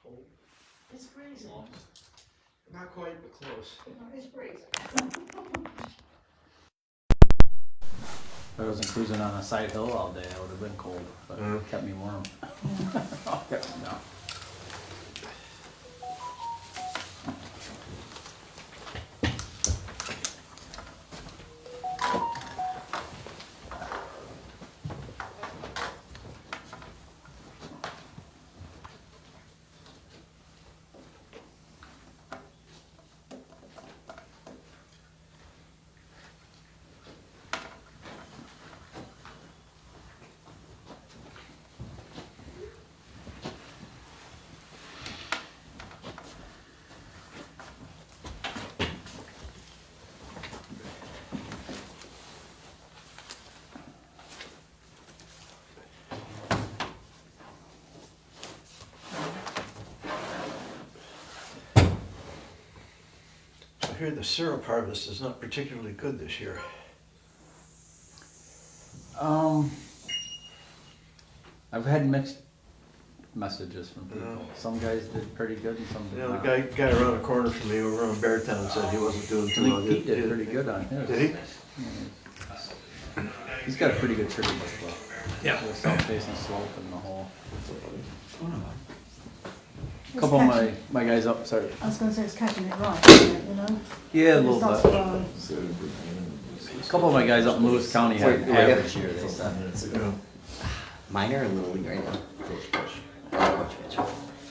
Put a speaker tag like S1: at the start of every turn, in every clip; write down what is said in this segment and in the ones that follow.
S1: Cold.
S2: It's freezing.
S1: Not quite, but close.
S2: No, It's freezing.
S3: If I wasn't cruising on a side hill all day, I would have been cold, but
S1: Mm-hmm.
S3: it kept me warm. Kept me down.
S1: I hear the syrup harvest is not particularly good this year.
S3: Um, I've had mixed messages from people.
S1: Yeah.
S3: Some guys did pretty good, and some did
S1: Yeah, the
S3: not.
S1: guy, guy around the corner from me over on Beartown said he wasn't doing
S3: I
S1: too well.
S3: think Pete did pretty good on his.
S1: Did he?
S3: He's got a pretty good trigger as well.
S1: Yeah.
S3: The south facing slope and the whole. Couple of my, my guys up, sorry.
S2: I was gonna say it's catching it right, isn't it, you know?
S3: Yeah, a
S2: It's
S3: little
S2: not
S3: bit.
S2: so-
S3: A couple of my guys up in Lewis County had
S4: Wait, I got-
S3: average year, they said.
S1: Yeah.
S4: Mine are in Little League right now. Oh, Which, which,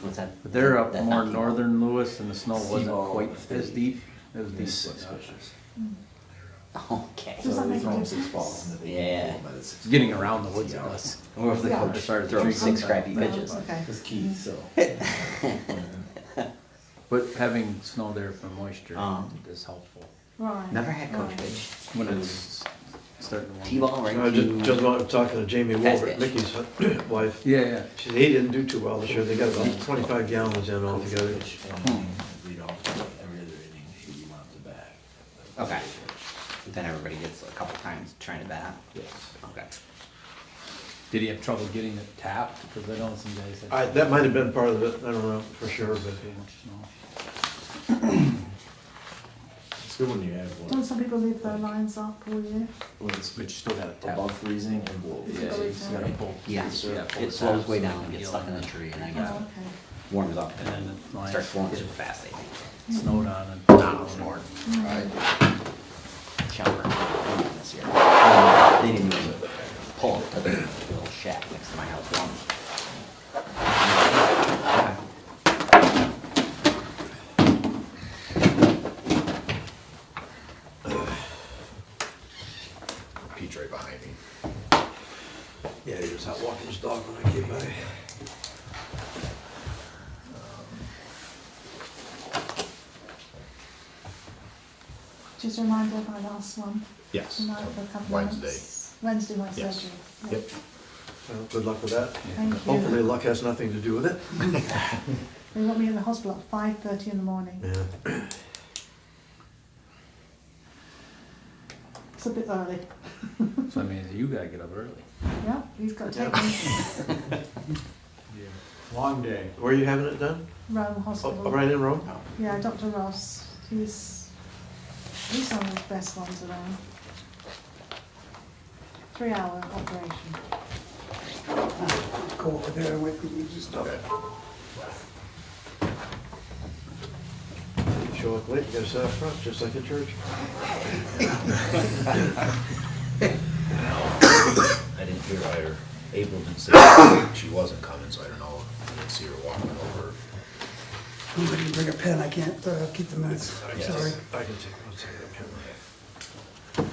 S4: what's that?
S3: Uh, But they're up
S4: That's
S3: more
S4: not-
S3: northern Lewis and the snow wasn't
S4: Seaball.
S3: quite as deep. It was deep. but not-
S4: Okay.
S2: Does that make a difference?
S4: Yeah.
S3: It's getting around the woods it was.
S4: Or if the
S2: Yeah.
S4: coach started throwing six crappy
S2: No,
S4: pitches.
S2: Okay.
S5: key, so.
S3: But having snow there for moisture I
S4: Um,
S3: think, is helpful.
S2: Right.
S4: Never had coach
S2: right.
S4: pitch.
S3: When it's starting to warm.
S4: T-ball right
S1: I was
S4: to.
S1: just, just wa- talking to Jamie
S4: Fast
S1: Wolbert,
S4: pitch.
S1: Mickey's wife.
S3: Yeah, yeah.
S1: She said he didn't do too well this year. They got about twenty-five gallons in altogether.
S5: Read off every other inning who you want to bat.
S4: Okay. Then everybody gets a couple times trying to bat.
S5: Yes.
S4: Okay.
S3: Did he have trouble getting it tapped? Because I know some guys had.
S1: I, that might have been part of it. I don't know for sure, but
S3: too much snow.
S5: It's good when you have
S2: Don't
S5: one.
S2: some people leave their lines up all year?
S5: Well, it's
S3: But you still got it
S5: above
S3: tapped.
S5: freezing and below.
S3: Yeah,
S2: Yeah,
S3: you just gotta pull.
S4: Yeah.
S3: you gotta pull
S4: It
S3: the
S4: slows
S3: taps
S4: way
S3: and
S4: down,
S3: then
S4: gets
S3: heal
S4: stuck in
S3: it.
S4: the tree, and then
S2: Oh,
S4: gets
S2: okay.
S4: warms up,
S3: And
S4: and
S3: then the
S4: then
S3: lines
S4: starts flowing
S3: get
S4: super fast. I think.
S3: snowed on and. Down.
S2: Mm.
S4: Chopper this year. They didn't even pull it to the little shack next to my house once.
S6: Pete's right behind me.
S1: yeah, he was out walking his dog when I came by.
S2: Just a reminder of my last one.
S6: Yes.
S2: Tonight for a couple of
S6: Wednesday.
S2: months. Wednesday, my
S6: Yes.
S2: surgery. Yeah.
S6: Yep.
S1: Well, Good luck with that.
S2: Thank you.
S1: Hopefully luck has nothing to do with it.
S2: They got me in the hospital at five thirty in the morning.
S1: Yeah.
S2: It's a bit early.
S3: So I mean, you gotta get up early.
S2: Yeah, he's got to take me
S5: Long day.
S1: Where are you having it done?
S2: Rome
S1: Oh,
S2: Hospital.
S1: right in Rome?
S2: Yeah, Dr. Ross. He's he's one of the best ones around. Three hour operation.
S6: Okay.
S1: Show up late, you gotta sit up front, just like the church.
S6: I didn't hear her. April didn't say she wasn't coming, so I don't know. I didn't see her walking over.
S7: I'm going to bring a pen, I can't uh, keep the minutes,
S6: Yes.
S7: sorry.
S1: I can take, I'll take that camera.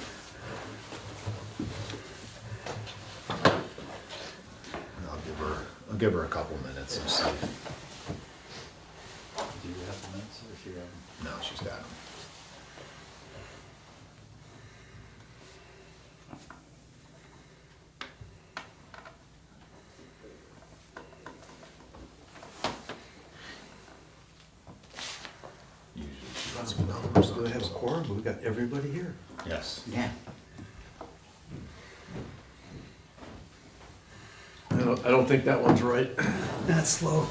S6: And I'll give her, I'll give her a couple minutes and see. if-
S3: Do you have the minutes or should you have them?
S6: No, she's got 'em. Usually she lets me know or
S1: Do they have a
S6: something, so-
S1: quorum? We've got everybody here.
S6: Yes.
S4: Yeah.
S1: I don't, I don't think that one's right.
S7: That's slow.